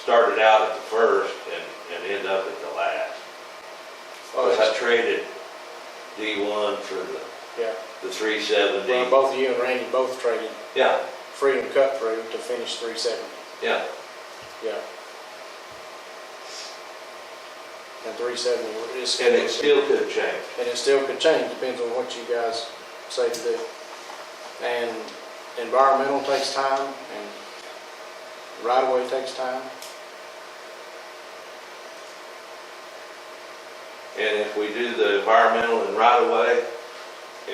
started out at the first and, and end up at the last. Oh, Cause I that's, traded D one for the, yeah. the three seventy. Well, both you and Randy both traded Yeah, Freedom Cut Through to finish three seventy, yeah, yeah. And three seventy, it's, and and it still could change. it still could change, depends on what you guys say to do. And environmental takes time, and right away takes time. And if we do the environmental and right away,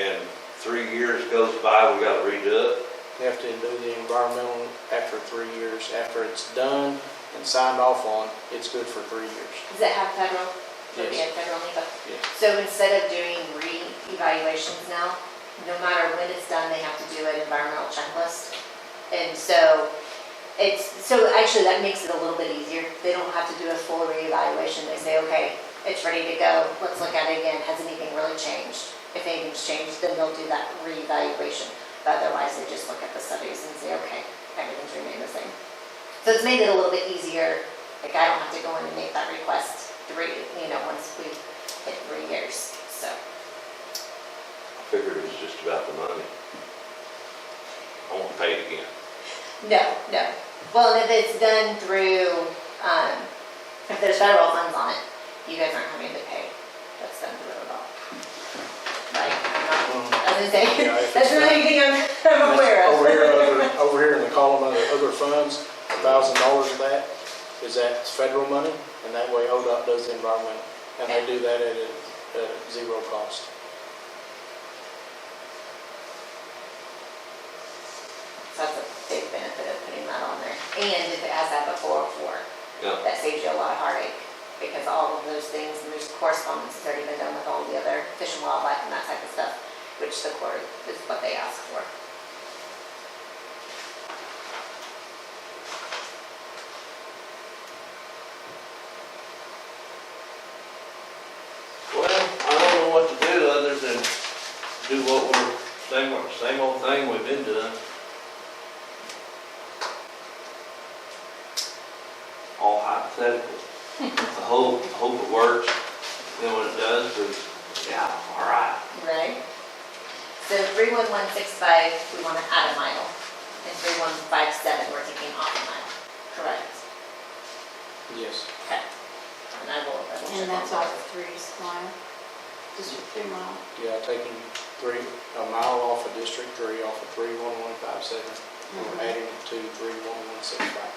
and three years goes by, we gotta redo it. You have to do the environmental after three years, after it's done and signed off on, it's good for three years. Does it have federal? Would it be a federal NEPA? Yes. So instead of doing re-evaluations now, no matter when it's done, they have to do an environmental checklist. And so it's, so actually that makes it a little bit easier. They don't have to do a full reevaluation. They say, okay, it's ready to go. Let's look at it again. Has anything really changed? If anything's changed, then they'll do that reevaluation. But otherwise, they just look at the studies and say, okay, everything's remained the same. So it's made it a little bit easier. Like I don't have to go in and make that request three, you know, once we hit three years, so. Figured it was just about the money. I won't pay it again. No, no. Well, and if it's done through, um, if there's federal funds on it, you guys aren't having to pay. That's done through the law. Like, I'm not, as I Yeah, say, if that's it's really anything I'm- I'm aware of. Over here, other- over here in the column of other funds, a thousand dollars of that is that federal money, and that way ODOT does the environment, and they do that at a, at a zero cost. So that's a big benefit of putting that on there. And if it has that before, for, Yeah. that saves you a lot of heartache because all of those things, and there's correspondence that's already been done with all the other fish and wildlife and that type of stuff, which the court is what they ask for. Well, I don't know what to do other than do what we're, same, old- same old thing we've been doing. All hypothetical. I hope, I hope it works, then when it does, it's, yeah, all right. Right. So three one one six five, we want to add a mile, and three one five seven, we're taking off a mile, correct? Yes. Okay. And I will double check. And that's on all that. three mile, district three mile. Yeah, taking three, a mile off of District Three, off of three one one five seven, Mm-hmm. we're adding it to three one one six five.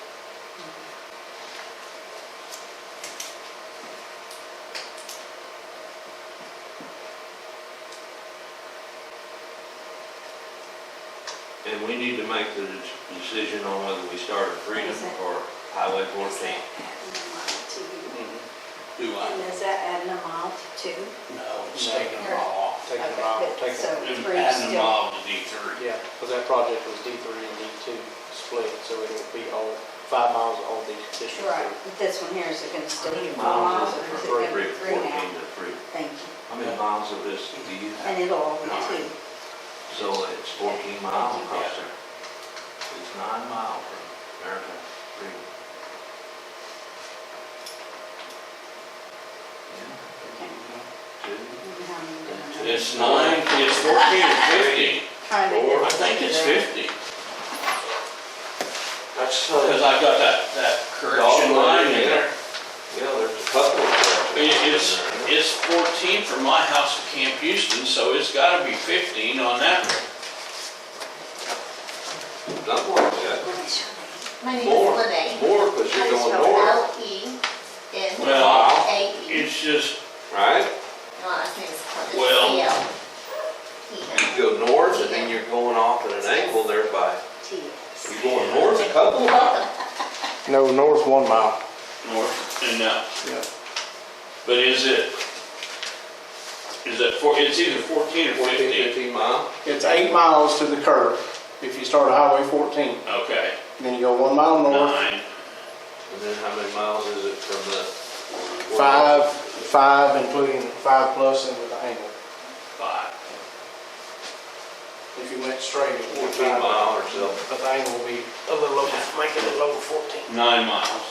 And we need to make the de- decision on whether we start at Freedom Is it- or Highway Is that fourteen. adding a mile to you? Do And is that adding a mile to two? No, it's taking them all off. Taking a Okay, mile, but- taking, So It's three Adding them still, all to D three. yeah, because that project was D three and D two split, so it would be all, five miles all the District right, Three. but this one here, is it gonna still be four Miles miles is or is it gonna be appropriate, three fourteen now? to three. Thank you. How many miles of this do you And have? it'll all be two. So it's fourteen miles across there. It's nine miles from American Freedom. Okay. Two, And how many do I know? It's nine, it's fourteen or fifty. Trying to get- I think it's fifty, That's, because uh, I got that, that correction line in there. yeah, there's a couple of. It- It's, it's fourteen from my house to Camp Houston, so it's gotta be fifteen on that. Another one's got What is your name? My name More. is Lene. more, because How you're do you going spell north, L E N Well, A E. It's just, right? My last name is Clemens. Well. C L E N. You go north and then you're going off at an angle there by, E TS. you're going north a couple of miles. Welcome. No, north one mile. north and now, Yeah. but is it, is it four, it's either fourteen or Fourteen, fifteen? fifteen mile. It's eight miles to the curb if you start at Highway 14. Okay, Then you go one mile north, nine. And then how many miles is it from the? five, five, including five plus and with the angle. five. If you went straight, it would be Fourteen five. mile or so. But the angle will be a little over, making it over 14. Nine miles.